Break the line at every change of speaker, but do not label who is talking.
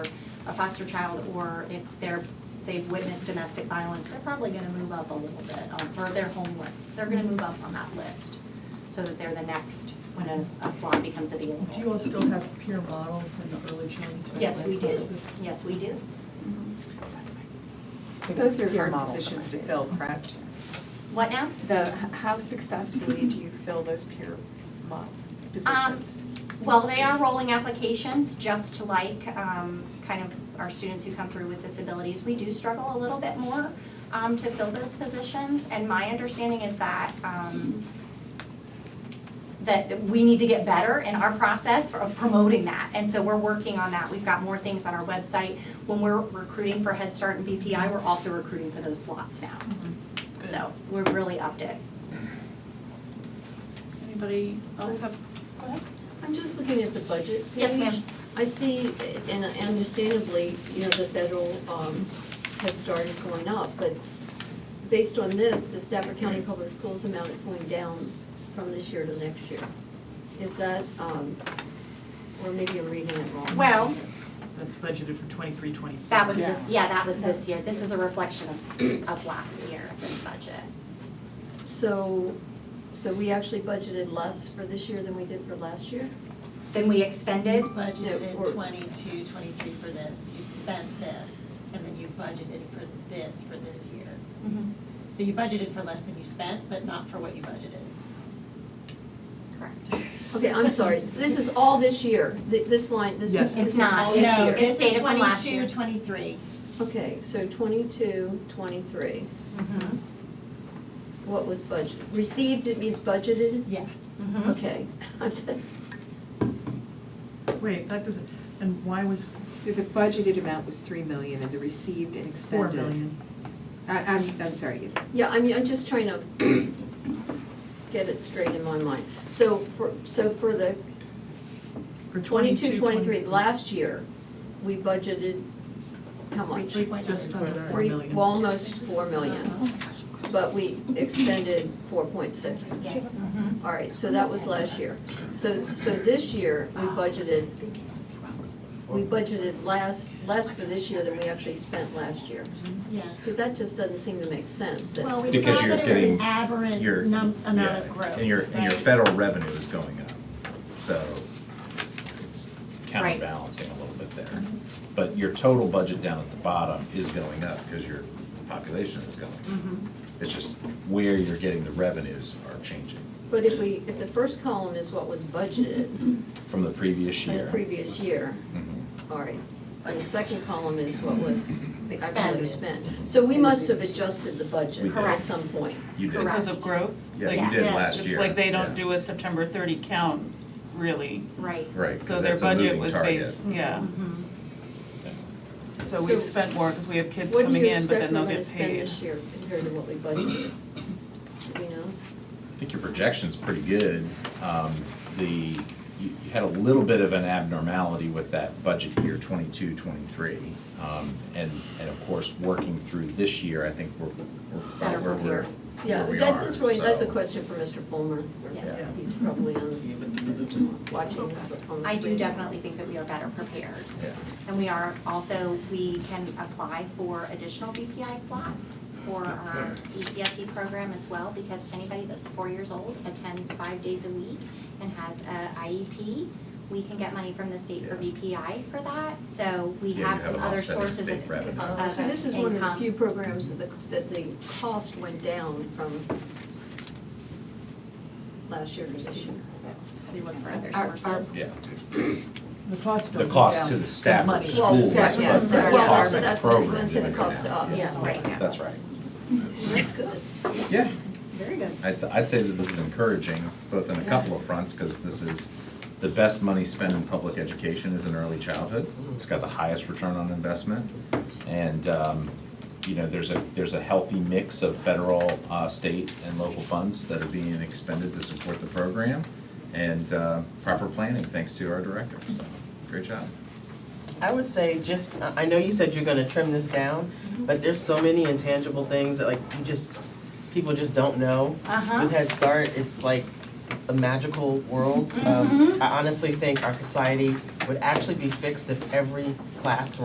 a foster child or if they're, they've witnessed domestic violence, they're probably gonna move up a little bit, um, or they're homeless, they're gonna move up on that list so that they're the next when a a slot becomes available.
Do you all still have peer models in the early childhood? special
Yes,
ed
we do,
courses?
yes, we do.
Those are
Peer
hard
models,
positions to
right.
fill, correct?
What now?
The, how successfully do you fill those peer
Um,
mod positions?
Well, they are rolling applications, just like um, kind of our students who come through with disabilities. We do struggle a little bit more um, to fill those positions, and my understanding is that um, that we need to get better in our process of promoting that, and so we're working on that. We've got more things on our website. When we're recruiting for Head Start and BPI, we're also recruiting for those slots now. So we're really upped it.
Anybody else have?
I'm just looking at the budget page.
Yes, ma'am.
I see, and understandably, you know, the federal um, Head Start is going up, but based on this, the Stafford County Public Schools amount is going down from this year to next year. Is that, um, or maybe you're reading it wrong?
Well,
Yes, That's budgeted for twenty-three, twenty-four.
That was
Yeah.
this, yeah, that was this year. This is a reflection of, of last year, this budget.
So, so we actually budgeted less for this year than we did for last year?
Then we expended,
budgeted
or-
22, 23 for this, you spent this, and then you budgeted for this for this year. Mm-hmm. So you budgeted for less than you spent, but not for what you budgeted.
correct.
Okay, I'm sorry, So this is all this year, Th- this line, this
Yes.
is, this
It's
is
not.
all this year?
No,
No,
it's
this
data
is
from last year.
22, 23.
Okay, so twenty-two, twenty-three,
Mm-hmm.
what was budgeted? Received, it means budgeted?
Yeah.
Mm-hmm.
Okay, I'm just,
Wait, that doesn't, and why was
So the budgeted amount was three million and the received and
four
expended.
million?
I, I'm, I'm sorry,
yeah, I mean, I'm just trying to get it straight in my mind. So for, so for the
For
twenty-two, twenty-three,
22,
last year, we budgeted how much?
Three point
Just
nine.
under four
Three,
million.
well, almost four million,
Uh-huh.
but we expended four point six.
Yes.
Mm-hmm.
All right, so that was last year. So, so this year, we budgeted, we budgeted last, less for this year than we actually spent last year.
Yes.
Because that just doesn't seem to make sense. that-
Well, we
Because
thought
you're
that it was an
getting your-
aberrant num- amount
Yeah,
of growth,
And your, and
right?
your federal revenue is going up, so it's- it's counterbalancing a little bit there.
Mm-hmm.
But your total budget down at the bottom is going up because your population is going
Mm-hmm.
up. It's just where you're getting the revenues are changing
But if we, if the first column is what was budgeted
from the previous
in
year.
the previous year,
Mhm.
all right, and the second column is what was actually
Expended.
spent. So we must have adjusted the budget at
Correct.
some point.
You did,
Correct.
Because of growth?
yeah,
Like,
you did
Yes.
last year.
It's like they don't
yeah.
do a September thirty count, really.
Right.
Right,
So
because
their
that's a
budget
moving
was
target.
Mm-hmm.
based, yeah. So
So-
we've spent more because we have kids
What do
coming
you
in, but
expect
then
we're
they'll
gonna
get
spend
paid.
this year compared to what we budgeted? You know?
I think your projection's pretty good. Um, The, you you had a little bit of an abnormality with that budget year 22, 23. Um, And, and of course, working through this year, I think we're, we're
Better
about where we're,
prepared.
Yeah,
where we
that
are,
is really, that's a
so.
question for Mr. Fulmer.
Yes.
Yeah.
He's probably on, watching this on the
I do
screen.
definitely think that we are better prepared.
Yeah.
And we are also, we can apply for additional BPI slots for our E ECSE program as well, because anybody that's four years old attends five days a week and has a IEP, we can get money from the state for
Yeah.
BPI for that, so we
Yeah, you
have
have
some
an
other
offsetting
sources
state
of, of
revenue.
Uh, So this is one of the
income.
few programs that the, that the cost went down from last year to this year.
So we look for other
Our- our-
sources.
Yeah,
The cost
the
don't go
cost
down,
to the staff of
money.
the school,
Well,
was, but
yeah,
the
yeah,
cost
so
of the
that's-
program
that's the
didn't go
cost to
down.
us.
Yeah,
Yeah, right now.
That's right.
That's good.
Yeah,
Very good.
I'd, I'd say that this is encouraging, both on a couple of fronts, because this is, the best money spent in public education is in early childhood. It's got the highest return on investment. And, um, you know, there's a, there's a healthy mix of federal, uh, state and local funds that are being expended to support the program. And, uh, proper planning, thanks to our director, so, great job.
I would say just, I I know you said you're gonna trim this down, but there's so many intangible things that like you just, people just don't know.
Uh-huh.
With Head Start, it's like a magical world. Um, I honestly think our society would actually be fixed if every classroom